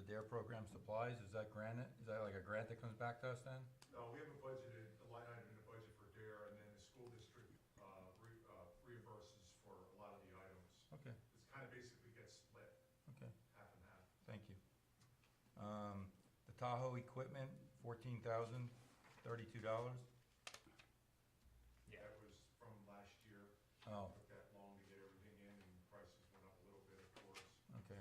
repair program supplies, is that granted, is that like a grant that comes back to us then? No, Uh, we have a budgeted, a line item in the budget for DARE, and then the school district uh, re- uh, reimburses for a lot of the items. Okay, It's kind of basically gets split okay, half and half. thank you. Um, the Tahoe equipment, fourteen thousand, thirty-two dollars? Yeah. That was from last year. Oh, Took that long to get everything in, and prices went up a little bit, of course. okay.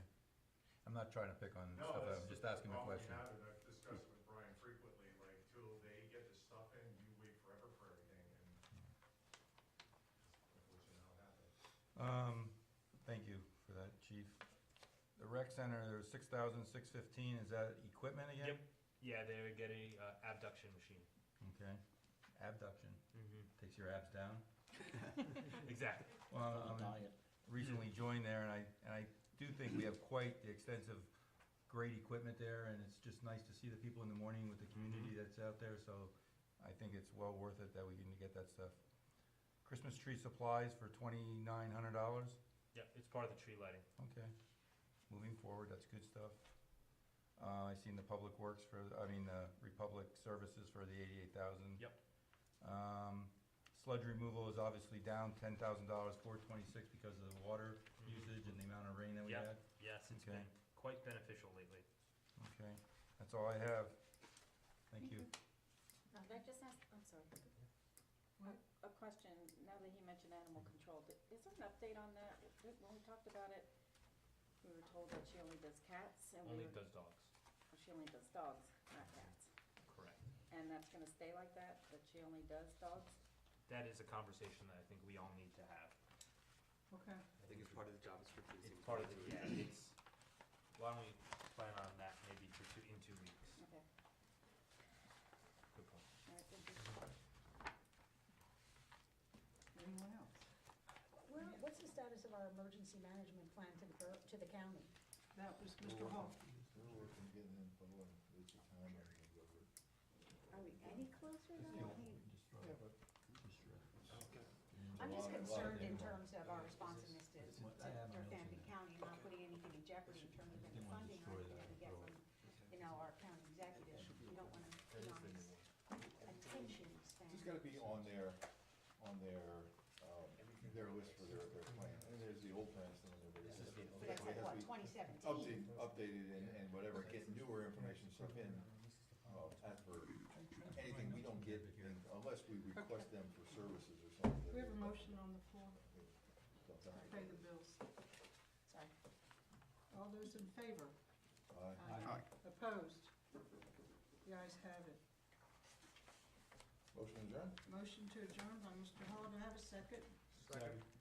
I'm not trying to pick on No, stuff, that's I'm just asking a problem we question. have, and I've discussed it with Brian frequently, like, till they get the stuff in, you wait forever for everything, and Mm-hmm. unfortunately, how it happens. Um, thank you for that, chief. The rec center, there's six thousand, six fifteen, is that equipment again? Yep. Yeah, they would get a uh, abduction machine. Okay, abduction, Mm-hmm. takes your abs down. Exactly. Well, I'm recently joined there, and I, and I do think we have quite the extensive, great equipment there, and it's just nice to see the people in the morning with the community that's out there, so I think it's well worth it that we can get that stuff. Christmas tree supplies for twenty-nine hundred dollars, Yeah, it's part of the tree lighting. okay, moving forward, that's good stuff. Uh, I seen the Public Works for, I mean, the Republic Services for the eighty-eight thousand. Yep. Um, sludge removal is obviously down ten thousand dollars, four twenty-six, because of the water Mhm. usage and the amount of rain that we Yep. had. Yes, it's Okay. been quite beneficial lately. Okay, that's all I have. Thank you. Now, Um, Can I just ask, I'm sorry. A a question, now that he mentioned animal control, th- is there an update on that? When we talked about it, we were told that she only does cats and Only we were, does dogs. she only does dogs, not cats. Correct. And that's gonna stay like that, that she only does dogs? That is a conversation that I think we all need to have. Okay. I think it's part of the job description. It's seems part of like the, it would- yeah, it's, why don't we plan on that maybe for two, in two weeks? Okay, Good point. all right, thank you. Anyone else? Where, what's the status of our emergency management plan to the, bor- to the county? That was Mr. Hoff. They're working, getting info, and it's a time, I think, over. Are we any closer now? Yeah, but. I'm just concerned in terms of our responsiveness to, to Fairfield County, not putting anything in jeopardy in terms of any funding or anything that we get from, you know, our county executive. You don't wanna That be is on the new this one. attention span. It's gotta be on their, on their, um, their list for their, their plan, and there's the old plans, and then there's. This But that's like, what, twenty seventeen? Update, updated and, and whatever, get newer information stuff in, uh, as per, anything we don't get, in- unless we request them for services or something. that We have a they- motion on the floor Something. to pay the bills. Sorry. All those in favor? Aye. Opposed? The ayes have it. Motion adjourned? Motion to adjourn by Mr. Hall. Do I have a second? Second.